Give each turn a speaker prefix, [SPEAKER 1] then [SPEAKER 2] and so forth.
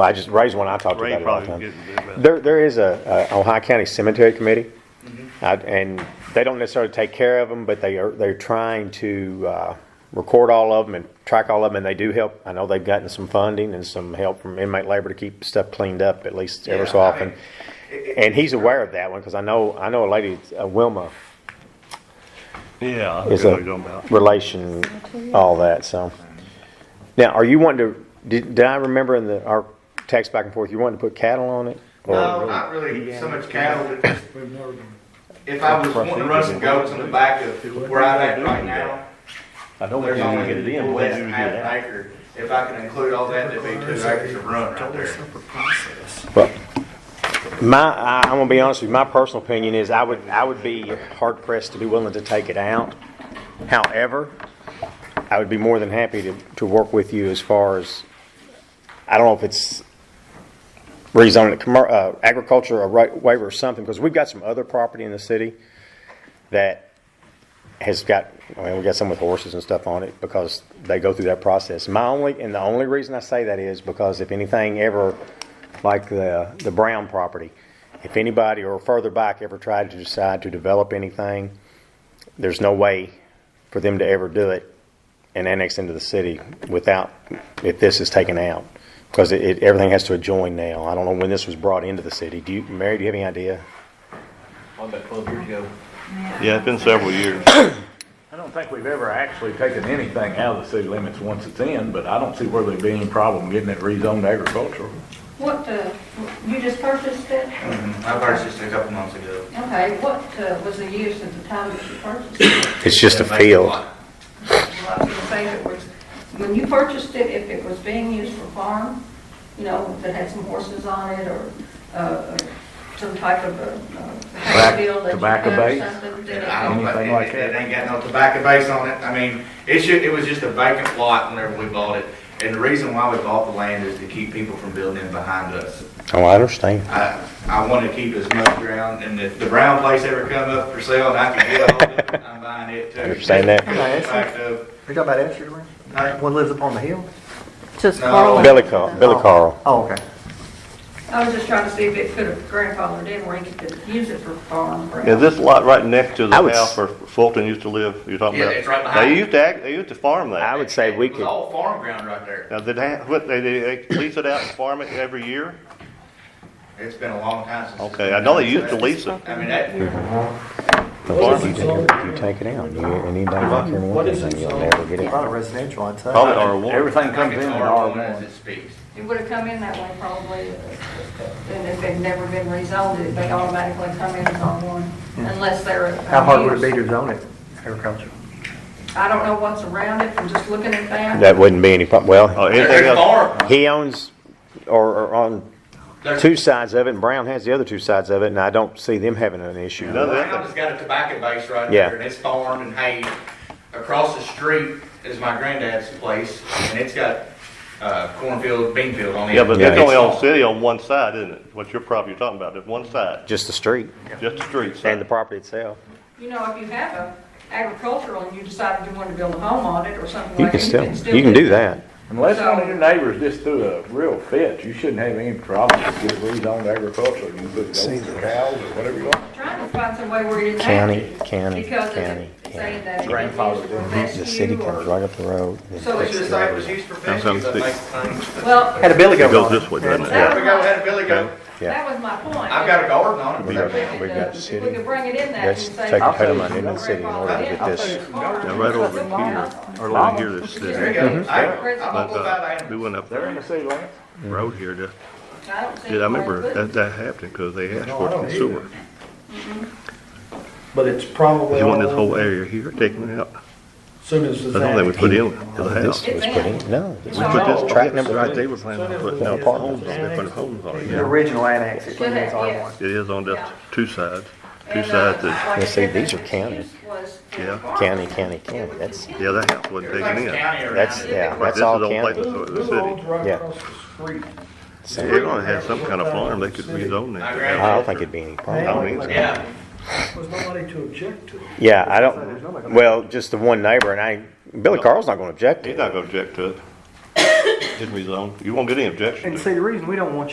[SPEAKER 1] I just raised one I talked to
[SPEAKER 2] Ray
[SPEAKER 1] about it all the
[SPEAKER 2] probably
[SPEAKER 1] time.
[SPEAKER 2] would get better.
[SPEAKER 1] There, there is a, a Ohio County Cemetery Committee,
[SPEAKER 3] Mm-hmm.
[SPEAKER 1] I- and they don't necessarily take care of them, but they are, they're trying to, uh, record all of them and track all of them, and they do help. I know they've gotten some funding and some help from inmate labor to keep stuff cleaned up at least ever so
[SPEAKER 3] Yeah, I
[SPEAKER 1] often.
[SPEAKER 3] mean, it- it-
[SPEAKER 1] And he's aware of that one, because I know, I know a lady, uh, Wilma,
[SPEAKER 2] Yeah, I
[SPEAKER 1] is
[SPEAKER 2] know what you're talking
[SPEAKER 1] a
[SPEAKER 2] about.
[SPEAKER 1] relation, all that, so. Now, are you wanting to, did, did I remember in the, our text back and forth, you wanted to put cattle on it? Or-
[SPEAKER 3] No, not really so much cattle, but just
[SPEAKER 4] We've never done.
[SPEAKER 3] if I was wanting to run some goats in the back of where I'm at right now,
[SPEAKER 5] I don't think
[SPEAKER 3] there's
[SPEAKER 5] you can get it
[SPEAKER 3] only
[SPEAKER 5] in,
[SPEAKER 3] less
[SPEAKER 5] but
[SPEAKER 3] than
[SPEAKER 5] you
[SPEAKER 3] half
[SPEAKER 5] get it
[SPEAKER 3] an
[SPEAKER 5] out.
[SPEAKER 3] acre. If I can include all that, there'd be two acres of run right there.
[SPEAKER 4] separate process.
[SPEAKER 1] Well, my, I- I'm gonna be honest with you, my personal opinion is I would, I would be hard pressed to be willing to take it out. However, I would be more than happy to, to work with you as far as, I don't know if it's rezoning it, commer- uh, agriculture, a right waiver or something, because we've got some other property in the city that has got, I mean, we got some with horses and stuff on it because they go through that process. My only, and the only reason I say that is because if anything ever, like the, the Brown property, if anybody or further back ever tried to decide to develop anything, there's no way for them to ever do it and annex into the city without, if this is taken out. Because it, it- everything has to adjoin now. I don't know when this was brought into the city. Do you, Mary, do you have any idea?
[SPEAKER 5] About twelve years ago.
[SPEAKER 2] Yeah, it's been several years.
[SPEAKER 5] I don't think we've ever actually taken anything out of the city limits once it's in, but I don't see where there'd be any problem getting it rezoned agricultural.
[SPEAKER 6] What, uh, you just purchased it?
[SPEAKER 3] I purchased it a couple months ago.
[SPEAKER 6] Okay, what uh, was the use at the time that you purchased it?
[SPEAKER 1] It's just a
[SPEAKER 3] It makes
[SPEAKER 1] field.
[SPEAKER 3] lot.
[SPEAKER 6] Well, I was gonna say that was, when you purchased it, if it was being used for farm, you know, if it had some horses on it or uh, some type of a hay
[SPEAKER 5] Tobacco-
[SPEAKER 6] field that you
[SPEAKER 5] tobacco
[SPEAKER 6] cut or
[SPEAKER 5] base?
[SPEAKER 6] something, then
[SPEAKER 3] I
[SPEAKER 6] it-
[SPEAKER 3] don't,
[SPEAKER 5] Anything
[SPEAKER 3] it,
[SPEAKER 5] like
[SPEAKER 3] it it
[SPEAKER 5] that?
[SPEAKER 3] ain't got no tobacco base on it. I mean, it should, it was just a vacant lot whenever we bought it. And the reason why we bought the land is to keep people from building in behind us.
[SPEAKER 1] Oh, I understand.
[SPEAKER 3] I, I want to keep as much ground, and if the brown place ever come up for sale and I can get all of it, I'm buying it too.
[SPEAKER 1] Understand that.
[SPEAKER 3] Fact of-
[SPEAKER 7] You talking about Asher Lane?
[SPEAKER 3] Hey,
[SPEAKER 7] One lives up on the hill?
[SPEAKER 8] Just
[SPEAKER 3] No.
[SPEAKER 8] Carl.
[SPEAKER 1] Billy Carl, Billy Carl.
[SPEAKER 7] Oh, okay.
[SPEAKER 6] I was just trying to see if it could have grandfathered in where you could use it for farm. or-
[SPEAKER 2] Is this lot right next to the
[SPEAKER 1] I would
[SPEAKER 2] house
[SPEAKER 1] s-
[SPEAKER 2] where Fulton used to live, you're talking
[SPEAKER 3] Yeah,
[SPEAKER 2] about?
[SPEAKER 3] it's right behind.
[SPEAKER 2] They used to, act- they used to farm that.
[SPEAKER 1] I would say we
[SPEAKER 3] It was
[SPEAKER 1] could,
[SPEAKER 3] all farm ground right there.
[SPEAKER 2] Now, did they, ha- what, they, they lease it out and farm it every year?
[SPEAKER 3] It's been a long time since. it's
[SPEAKER 2] Okay,
[SPEAKER 3] been
[SPEAKER 2] I know
[SPEAKER 3] done,
[SPEAKER 2] they used
[SPEAKER 3] so
[SPEAKER 2] to lease it.
[SPEAKER 3] I mean, that,
[SPEAKER 1] if you take it- if you take it out, you, anything,
[SPEAKER 4] What is
[SPEAKER 1] anything,
[SPEAKER 4] it?
[SPEAKER 1] you'll never get
[SPEAKER 7] A
[SPEAKER 1] it.
[SPEAKER 7] lot of residential, I'd say.
[SPEAKER 2] Probably R1.
[SPEAKER 5] Everything
[SPEAKER 3] I
[SPEAKER 5] comes
[SPEAKER 3] think
[SPEAKER 5] in
[SPEAKER 3] it's
[SPEAKER 5] in
[SPEAKER 3] R1 as
[SPEAKER 5] R1.
[SPEAKER 3] it speaks.
[SPEAKER 6] It would have come in that way probably, and if it'd never been rezoned, it they automatically come in as R1, unless they're.
[SPEAKER 7] How hard would it be to zone it, agriculture?
[SPEAKER 6] I don't know what's around it, from just looking at that.
[SPEAKER 1] That wouldn't be any problem. Well,
[SPEAKER 2] Oh, anything
[SPEAKER 3] There's
[SPEAKER 2] else?
[SPEAKER 3] farm,
[SPEAKER 1] he owns, or, or on
[SPEAKER 3] there's,
[SPEAKER 1] two sides of it, and Brown has the other two sides of it, and I don't see them having an issue.
[SPEAKER 2] No, they-
[SPEAKER 3] Brown's got a tobacco base right
[SPEAKER 1] Yeah.
[SPEAKER 3] there, and it's farmed and hay. Across the street is my granddad's place, and it's got, uh, cornfield, bean field on it.
[SPEAKER 2] Yeah, but
[SPEAKER 1] Yeah,
[SPEAKER 2] it's only
[SPEAKER 1] it's-
[SPEAKER 2] on city on one side, isn't it? What your property you're talking about, there's one side,
[SPEAKER 1] Just the street
[SPEAKER 2] just the street side.
[SPEAKER 1] and the property itself.
[SPEAKER 6] You know, if you have a agricultural and you decided you wanted to build a home on it or something
[SPEAKER 1] You
[SPEAKER 6] like.
[SPEAKER 1] can
[SPEAKER 6] that,
[SPEAKER 1] still, you can do that.
[SPEAKER 5] Unless one of your neighbors just threw a real fit, you shouldn't have any problem with getting rezoned agricultural. You can put goats or cows or whatever you want.
[SPEAKER 6] Trying to find some way where you didn't have
[SPEAKER 1] County,
[SPEAKER 6] to.
[SPEAKER 1] county,
[SPEAKER 6] Because
[SPEAKER 1] county,
[SPEAKER 6] it's saying that.
[SPEAKER 5] Grandfather
[SPEAKER 1] The city comes right up the road. then
[SPEAKER 6] So it's
[SPEAKER 1] takes
[SPEAKER 6] just
[SPEAKER 1] the
[SPEAKER 3] It
[SPEAKER 1] road.
[SPEAKER 3] was used for
[SPEAKER 2] That's
[SPEAKER 3] fishing, but
[SPEAKER 2] something.
[SPEAKER 3] makes things.
[SPEAKER 6] Well,
[SPEAKER 7] Had a billy
[SPEAKER 2] It
[SPEAKER 7] goat
[SPEAKER 2] goes
[SPEAKER 7] on it.
[SPEAKER 2] this way, doesn't it?
[SPEAKER 6] Yeah.
[SPEAKER 3] There we go, had a billy goat.
[SPEAKER 1] Yeah.
[SPEAKER 6] that was my point.
[SPEAKER 3] I've got a garden on it.
[SPEAKER 1] We
[SPEAKER 3] but
[SPEAKER 1] got-
[SPEAKER 3] that-
[SPEAKER 1] we got
[SPEAKER 6] If
[SPEAKER 1] city.
[SPEAKER 6] We could bring it in that and
[SPEAKER 1] Let's
[SPEAKER 6] say.
[SPEAKER 1] take a
[SPEAKER 5] I'll
[SPEAKER 1] ton of
[SPEAKER 5] say
[SPEAKER 1] money in the city in order to get
[SPEAKER 6] grandfathered in.
[SPEAKER 1] this.
[SPEAKER 2] Yeah, right over here, or over here, this,
[SPEAKER 3] There you
[SPEAKER 2] this,
[SPEAKER 3] go. I, I'm
[SPEAKER 2] but,
[SPEAKER 3] all
[SPEAKER 2] uh,
[SPEAKER 3] about
[SPEAKER 2] we
[SPEAKER 3] animals.
[SPEAKER 2] went up
[SPEAKER 5] They're in the
[SPEAKER 2] the
[SPEAKER 5] city limits.
[SPEAKER 2] road here, just,
[SPEAKER 6] I don't see.
[SPEAKER 2] did I
[SPEAKER 6] why it
[SPEAKER 2] remember that,
[SPEAKER 6] wouldn't.
[SPEAKER 2] that happened, because they asked for it from sewer.
[SPEAKER 4] But it's probably.
[SPEAKER 2] They want this
[SPEAKER 4] all-
[SPEAKER 2] whole area here taken out.
[SPEAKER 4] Soon as
[SPEAKER 2] I
[SPEAKER 4] it's.
[SPEAKER 2] thought they would put in to the house.
[SPEAKER 1] This was put in, no. this was
[SPEAKER 2] But this
[SPEAKER 1] Track number
[SPEAKER 2] Right,
[SPEAKER 1] three.
[SPEAKER 2] they were planning on putting out homes on, they put homes on it,
[SPEAKER 7] The
[SPEAKER 2] yeah.
[SPEAKER 7] original annex, it
[SPEAKER 6] Should
[SPEAKER 7] remains
[SPEAKER 6] have, yeah.
[SPEAKER 7] R1.
[SPEAKER 2] It is on just two sides, two
[SPEAKER 6] And, uh,
[SPEAKER 2] sides that,
[SPEAKER 6] like
[SPEAKER 1] Yeah,
[SPEAKER 6] I
[SPEAKER 1] see,
[SPEAKER 6] said,
[SPEAKER 1] these
[SPEAKER 6] the
[SPEAKER 1] are county.
[SPEAKER 6] use was for
[SPEAKER 2] Yeah.
[SPEAKER 6] farm.
[SPEAKER 1] County, county, county, that's-
[SPEAKER 2] yeah, that house wasn't
[SPEAKER 3] Everything's
[SPEAKER 2] taken in. Right,
[SPEAKER 3] county around
[SPEAKER 1] That's,
[SPEAKER 3] it.
[SPEAKER 1] yeah,
[SPEAKER 2] this
[SPEAKER 1] that's
[SPEAKER 2] is
[SPEAKER 1] all
[SPEAKER 2] on
[SPEAKER 1] county.
[SPEAKER 2] places of the
[SPEAKER 4] Little old
[SPEAKER 2] city.
[SPEAKER 4] right
[SPEAKER 1] Yeah.
[SPEAKER 4] across the street.
[SPEAKER 2] They're gonna have some kind of farm, they could rezone that. to
[SPEAKER 1] I
[SPEAKER 2] have-
[SPEAKER 1] don't think it'd be any problem.
[SPEAKER 2] I don't either.
[SPEAKER 3] Yeah.
[SPEAKER 4] Was nobody to object to it.
[SPEAKER 1] Yeah, I don't, well, just the one neighbor, and I, Billy Carl's not gonna object to it.
[SPEAKER 2] He's not gonna object to it.
[SPEAKER 9] Didn't rezone. You won't get any objection.
[SPEAKER 2] And see, the reason we don't want